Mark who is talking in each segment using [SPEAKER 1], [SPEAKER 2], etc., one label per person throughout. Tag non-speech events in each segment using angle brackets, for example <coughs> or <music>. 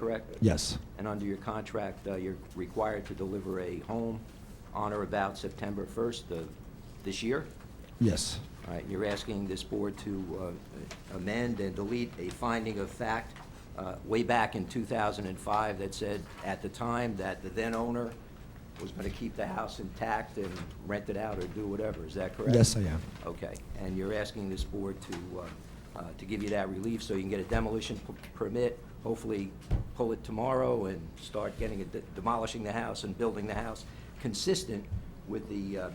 [SPEAKER 1] correct?
[SPEAKER 2] Yes,
[SPEAKER 1] And under your contract, uh, you're required to deliver a home on or about September 1st of this year?
[SPEAKER 2] yes,
[SPEAKER 1] All right, you're asking this board to uh, amend and delete a finding of fact uh, way back in 2005 that said, at the time, that the then-owner was going to keep the house intact and rent it out or do whatever, is that correct?
[SPEAKER 2] yes, I am.
[SPEAKER 1] Okay, and you're asking this board to, uh, uh, to give you that relief so you can get a demolition p- permit, hopefully pull it tomorrow and start getting, it de- demolishing the house and building the house consistent with the uh, uh,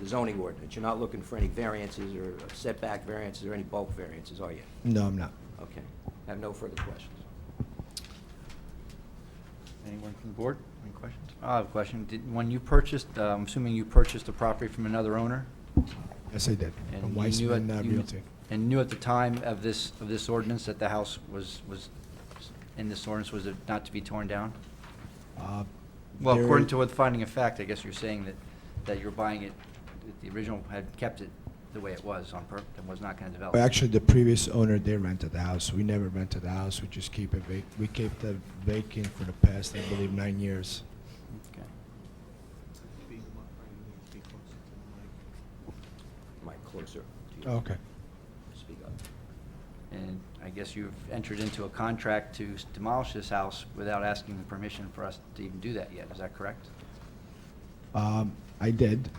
[SPEAKER 1] the zoning ordinance. You're not looking for any variances or setback variances or any bulk variances, are you?
[SPEAKER 2] No, I'm not.
[SPEAKER 1] Okay, I have no further questions.
[SPEAKER 3] Anyone from the board?
[SPEAKER 4] Any questions?
[SPEAKER 3] I have a question. Did- When you purchased, uh, I'm assuming you purchased the property from another owner?
[SPEAKER 2] Yes, I did.
[SPEAKER 3] and
[SPEAKER 2] From
[SPEAKER 3] you knew at-
[SPEAKER 2] Weissman uh,
[SPEAKER 3] you kn-
[SPEAKER 2] Realty.
[SPEAKER 3] And knew at the time of this, of this ordinance that the house was, was, in this ordinance was not to be torn down?
[SPEAKER 2] Uh,
[SPEAKER 3] Well,
[SPEAKER 2] there-
[SPEAKER 3] according to what the finding of fact, I guess you're saying that, that you're buying it, that the original had kept it the way it was on purpose and was not going to develop.
[SPEAKER 2] Actually, the previous owner, they rented the house. We never rented the house, we just keep it vac, we kept it vacant for the past, I believe, nine years.
[SPEAKER 3] Okay.
[SPEAKER 1] Mike, closer to you.
[SPEAKER 2] Oh, Okay.
[SPEAKER 1] Speak up.
[SPEAKER 3] And I guess you've entered into a contract to s- demolish this house without asking the permission for us to even do that yet, is that correct?
[SPEAKER 2] Um, I did.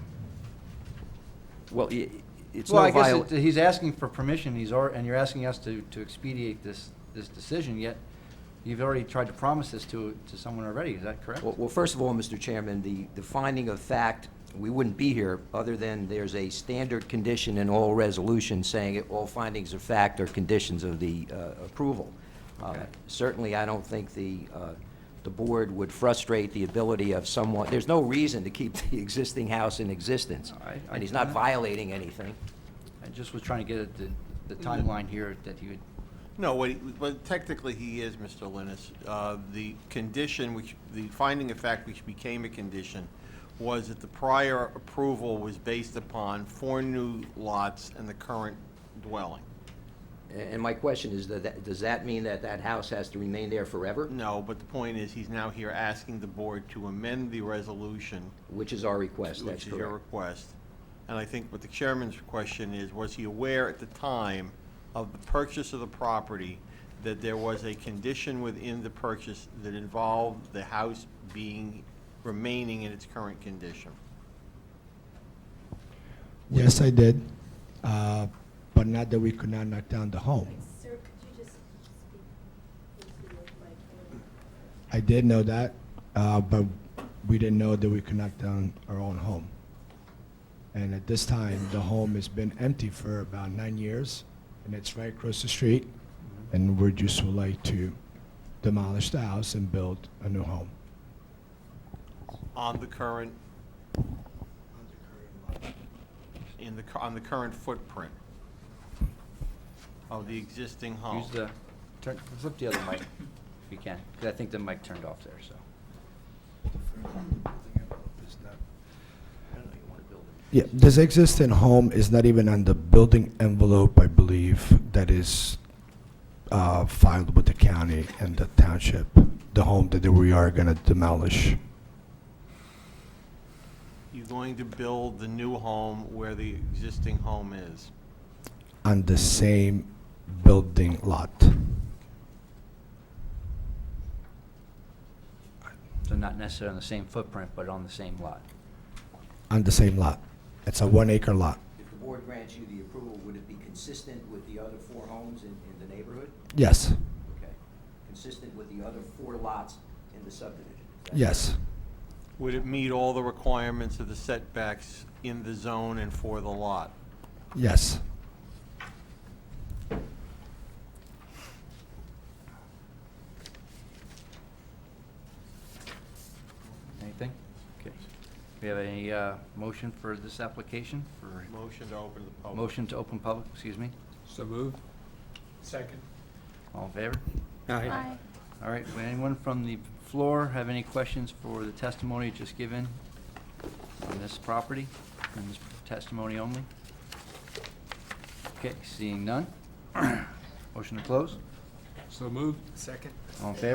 [SPEAKER 1] Well, i- it's
[SPEAKER 3] Well,
[SPEAKER 1] no
[SPEAKER 3] I guess
[SPEAKER 1] viola-
[SPEAKER 3] it- he's asking for permission, he's, al- and you're asking us to, to expedite this, this decision, yet you've already tried to promise this to, to someone already, is that correct?
[SPEAKER 1] Well, well, first of all, Mr. Chairman, the, the finding of fact, we wouldn't be here other than there's a standard condition in all resolutions saying it- all findings of fact are conditions of the uh, approval. Uh,
[SPEAKER 3] Okay.
[SPEAKER 1] Certainly, I don't think the, uh, the board would frustrate the ability of someone, there's no reason to keep <laughs> the existing house in existence.
[SPEAKER 3] All right, I-
[SPEAKER 1] And he's not violating anything.
[SPEAKER 3] I just was trying to get at the, the timeline here that you would,
[SPEAKER 4] No, what, he- but technically he is, Mr. Linus. Uh, The condition, which, the finding of fact which became a condition, was that the prior approval was based upon four new lots and the current dwelling.
[SPEAKER 1] A- And my question is, that- that- does that mean that that house has to remain there forever?
[SPEAKER 4] No, but the point is, he's now here asking the board to amend the resolution,
[SPEAKER 1] Which is our request,
[SPEAKER 4] which
[SPEAKER 1] that's
[SPEAKER 4] is your
[SPEAKER 1] correct.
[SPEAKER 4] request. And I think what the chairman's question is, was he aware at the time of the purchase of the property that there was a condition within the purchase that involved the house being, remaining in its current condition?
[SPEAKER 2] Yes, I did. Uh, but not that we could not knock down the home.
[SPEAKER 5] Sir, could you just speak into the mic?
[SPEAKER 2] I did know that, uh, but we didn't know that we could knock down our own home. And at this time, the home has been empty for about nine years, and it's right across the street, and we just would like to demolish the house and build a new home.
[SPEAKER 4] On the current? In the, cu- on the current footprint of the existing home?
[SPEAKER 3] use the, turn, flip the other mic if you can, because I think the mic turned off there, so.
[SPEAKER 2] Yeah, this existing home is not even on the building envelope, I believe, that is uh, filed with the county and the township, the home that we are going to demolish.
[SPEAKER 4] You're going to build the new home where the existing home is?
[SPEAKER 2] on the same building lot.
[SPEAKER 3] So not necessarily on the same footprint, but on the same lot.
[SPEAKER 2] On the same lot. It's a one acre lot.
[SPEAKER 1] If the board grants you the approval, would it be consistent with the other four homes in, in the neighborhood?
[SPEAKER 2] Yes,
[SPEAKER 1] Okay. Consistent with the other four lots in the subdivision? is that-
[SPEAKER 2] yes,
[SPEAKER 4] Would it meet all the requirements of the setbacks in the zone and for the lot?
[SPEAKER 2] yes.
[SPEAKER 3] Anything? Okay. We have any uh, motion for this application? For
[SPEAKER 4] Motion to open to the public.
[SPEAKER 3] Motion to open public, excuse me?
[SPEAKER 6] So moved. Second.
[SPEAKER 3] All in favor?
[SPEAKER 5] Aye.
[SPEAKER 3] All right, would anyone from the floor have any questions for the testimony just given on this property, and this testimony only? Okay, seeing none. <coughs> Motion to close?
[SPEAKER 6] So moved. Second.
[SPEAKER 3] All in favor?